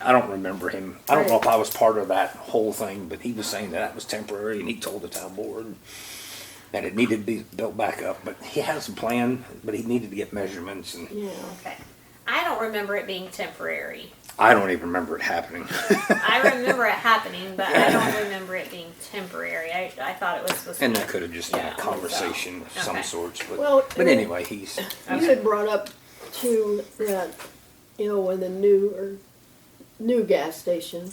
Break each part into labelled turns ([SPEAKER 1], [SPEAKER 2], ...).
[SPEAKER 1] I don't remember him. I don't know if I was part of that whole thing, but he was saying that that was temporary, and he told the town board that it needed to be built back up. But he has a plan, but he needed to get measurements, and
[SPEAKER 2] Yeah.
[SPEAKER 3] Okay. I don't remember it being temporary.
[SPEAKER 1] I don't even remember it happening.
[SPEAKER 3] I remember it happening, but I don't remember it being temporary. I, I thought it was supposed to
[SPEAKER 1] and
[SPEAKER 3] be.
[SPEAKER 1] that could have just been
[SPEAKER 3] Yeah,
[SPEAKER 1] a conversation of some
[SPEAKER 3] okay.
[SPEAKER 1] sorts. But
[SPEAKER 2] Well,
[SPEAKER 1] but
[SPEAKER 2] uh,
[SPEAKER 1] anyway, he's
[SPEAKER 2] You had brought up too that, you know, when the new or new gas station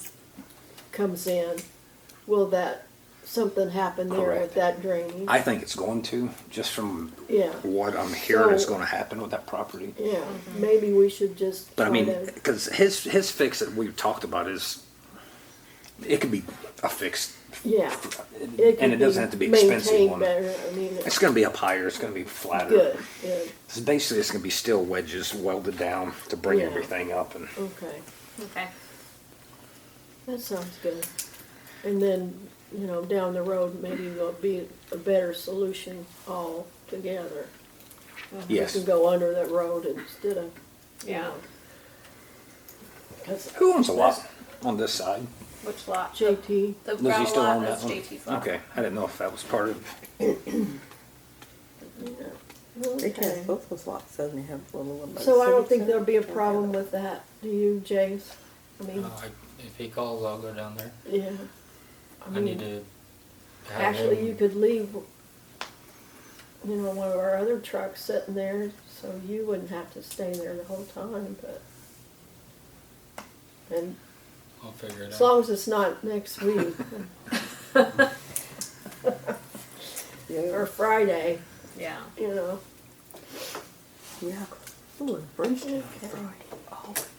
[SPEAKER 2] comes in, will that something happen there
[SPEAKER 1] Correct.
[SPEAKER 2] with that drainage?
[SPEAKER 1] I think it's going to just from
[SPEAKER 2] yeah,
[SPEAKER 1] what I'm hearing is
[SPEAKER 2] So-
[SPEAKER 1] going to happen with that property.
[SPEAKER 2] yeah. Maybe we should just.
[SPEAKER 1] But I
[SPEAKER 2] try
[SPEAKER 1] mean,
[SPEAKER 2] to-
[SPEAKER 1] because his his fix that we've talked about is it could be a fix,
[SPEAKER 2] yeah,
[SPEAKER 1] and
[SPEAKER 2] could
[SPEAKER 1] it doesn't have to be
[SPEAKER 2] maintained
[SPEAKER 1] expensive one.
[SPEAKER 2] Better. I mean,
[SPEAKER 1] It's going to be up higher. It's going to be flatter.
[SPEAKER 2] good. Good.
[SPEAKER 1] It's basically, it's going to be steel wedges welded down to bring
[SPEAKER 2] Yeah.
[SPEAKER 1] everything up. And
[SPEAKER 2] Okay.
[SPEAKER 3] Okay.
[SPEAKER 2] That sounds good. And then, you know, down the road, maybe there'll be a better solution all together.
[SPEAKER 1] yes,
[SPEAKER 2] You can go under that road uh, instead of, you
[SPEAKER 3] Yeah.
[SPEAKER 2] know. 'Cause
[SPEAKER 1] who owns a lot on this side?
[SPEAKER 3] Which lot?
[SPEAKER 2] JT,
[SPEAKER 3] The
[SPEAKER 1] Does he
[SPEAKER 3] gravel
[SPEAKER 1] still
[SPEAKER 3] lot,
[SPEAKER 1] own that
[SPEAKER 3] that's
[SPEAKER 1] one?
[SPEAKER 3] JT's lot.
[SPEAKER 1] Okay, I didn't know if that was part of.
[SPEAKER 4] They can
[SPEAKER 2] okay.
[SPEAKER 4] have both those lots, doesn't they have a little one by the
[SPEAKER 2] So I don't
[SPEAKER 4] civic
[SPEAKER 2] think
[SPEAKER 4] center?
[SPEAKER 2] there'll be a problem with that, do you, James? I mean,
[SPEAKER 5] Uh, I- If he calls, I'll go down there.
[SPEAKER 2] yeah.
[SPEAKER 5] I
[SPEAKER 2] mean,
[SPEAKER 5] need to. have
[SPEAKER 2] Actually, you
[SPEAKER 5] him-
[SPEAKER 2] could leave, you know, one of our other trucks sitting there, so you wouldn't have to stay there the whole time, but. And
[SPEAKER 5] I'll figure it
[SPEAKER 2] As
[SPEAKER 5] out.
[SPEAKER 2] long as it's not next week
[SPEAKER 4] Yeah,
[SPEAKER 2] or Friday,
[SPEAKER 3] Yeah.
[SPEAKER 2] you know.
[SPEAKER 4] yeah. Ooh, and Oh, Bridgeton,
[SPEAKER 2] Okay.
[SPEAKER 4] Friday,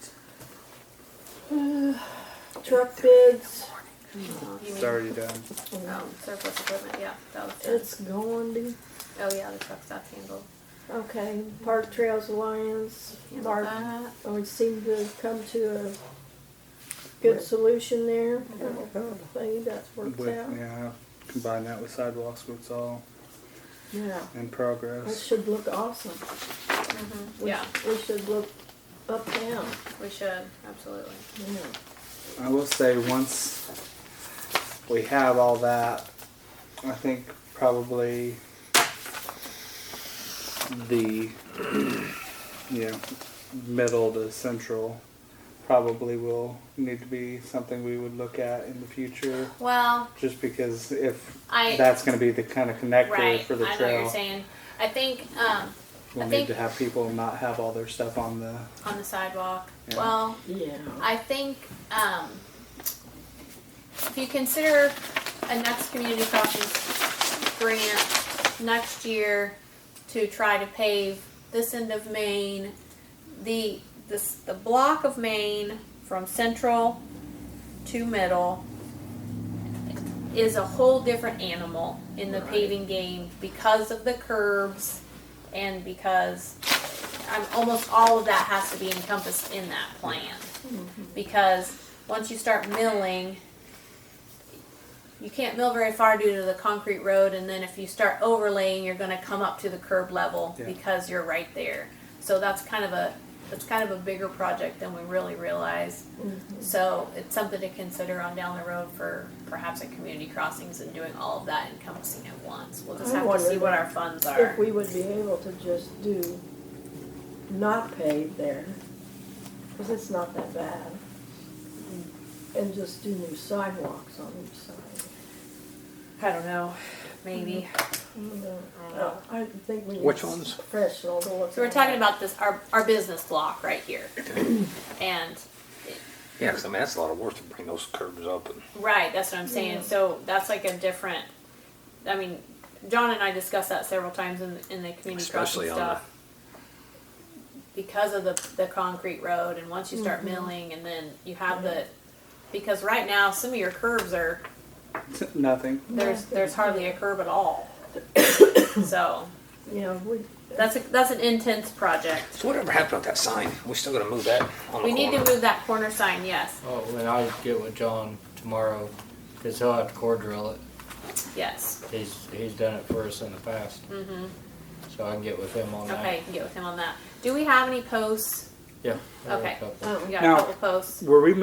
[SPEAKER 4] always.
[SPEAKER 2] Uh, Truck bids,
[SPEAKER 3] You mean,
[SPEAKER 6] It's already done.
[SPEAKER 3] um, surplus equipment, yeah, that was it.
[SPEAKER 2] it's going to,
[SPEAKER 3] Oh, yeah, the truck's off handle.
[SPEAKER 2] okay, Park Trails Alliance,
[SPEAKER 3] Handle
[SPEAKER 2] Mark,
[SPEAKER 3] that.
[SPEAKER 2] we seem to have come to a good solution there. I don't
[SPEAKER 4] Oh,
[SPEAKER 2] think that's worked
[SPEAKER 6] With,
[SPEAKER 2] out.
[SPEAKER 6] yeah, combine that with sidewalks, so it's all
[SPEAKER 2] Yeah,
[SPEAKER 6] in
[SPEAKER 2] that
[SPEAKER 6] progress.
[SPEAKER 2] should look awesome. We-
[SPEAKER 3] Yeah,
[SPEAKER 2] We should look up down,
[SPEAKER 3] we should, absolutely.
[SPEAKER 2] yeah.
[SPEAKER 6] I will say, once we have all that, I think probably the, you know, middle to central probably will need to be something we would look at in the future.
[SPEAKER 3] Well,
[SPEAKER 6] Just because if
[SPEAKER 3] I-
[SPEAKER 6] that's going to be the kind of connector
[SPEAKER 3] right,
[SPEAKER 6] for
[SPEAKER 3] I know
[SPEAKER 6] the
[SPEAKER 3] what
[SPEAKER 6] trail,
[SPEAKER 3] you're saying. I think, um,
[SPEAKER 6] we'll
[SPEAKER 3] I
[SPEAKER 6] need
[SPEAKER 3] think-
[SPEAKER 6] to have people not have all their stuff on the
[SPEAKER 3] on the sidewalk,
[SPEAKER 6] Yeah.
[SPEAKER 3] well,
[SPEAKER 2] Yeah.
[SPEAKER 3] I think um, if you consider a next community crossings grant next year to try to pave this end of Maine, the this the block of Maine from Central to Middle is a whole different animal in the paving game because of the curbs and because I'm, almost all of that has to be encompassed in that plan.
[SPEAKER 2] Mm-hmm.
[SPEAKER 3] Because once you start milling, you can't mill very far due to the concrete road, and then if you start overlaying, you're gonna come up to the curb level
[SPEAKER 6] Yeah.
[SPEAKER 3] because you're right there. So that's kind of a, that's kind of a bigger project than we really realize.
[SPEAKER 2] Mm-hmm.
[SPEAKER 3] So it's something to consider on down the road for perhaps at community crossings and doing all of that encompassing at once. We'll just
[SPEAKER 2] I
[SPEAKER 3] have to
[SPEAKER 2] wonder
[SPEAKER 3] see what our funds are.
[SPEAKER 2] if we would be able to just do not pave there, because it's not that bad, and just do new sidewalks on each side.
[SPEAKER 3] I don't know, maybe.
[SPEAKER 2] Uh, I think we need.
[SPEAKER 1] Which ones?
[SPEAKER 2] Professional to look.
[SPEAKER 3] Mm-hmm. So we're
[SPEAKER 2] at
[SPEAKER 3] talking
[SPEAKER 2] it.
[SPEAKER 3] about this our our business block right here, and
[SPEAKER 1] Yeah, 'cause, I mean that's a lot of work to bring those curves up. And
[SPEAKER 3] right, that's what I'm saying. So that's like a different. I mean, John and I discussed that several times in in the community
[SPEAKER 1] Especially
[SPEAKER 3] crossing
[SPEAKER 1] on
[SPEAKER 3] stuff. Because of the the concrete road, and once you start milling, and then you have the, because right now some of your curves are
[SPEAKER 6] nothing.
[SPEAKER 3] there's there's hardly a curb at all. so
[SPEAKER 2] Yeah, we,
[SPEAKER 3] that's a, that's an intense project.
[SPEAKER 1] so whatever happened with that sign? We still got to move that. On the
[SPEAKER 3] We need to
[SPEAKER 1] corner?
[SPEAKER 3] move that corner sign. Yes,
[SPEAKER 5] Oh, and I'll get with John tomorrow, cause he'll have to core drill it.
[SPEAKER 3] yes.
[SPEAKER 5] He's, he's done it for us in the past. Mm-hmm. So I can get with him on that.
[SPEAKER 3] Okay, you can get with him on that. Do we have any posts?
[SPEAKER 5] Yeah. I'll
[SPEAKER 3] Okay.
[SPEAKER 5] look up
[SPEAKER 2] oh,
[SPEAKER 3] We got
[SPEAKER 6] Now-
[SPEAKER 3] a couple posts.
[SPEAKER 6] Were we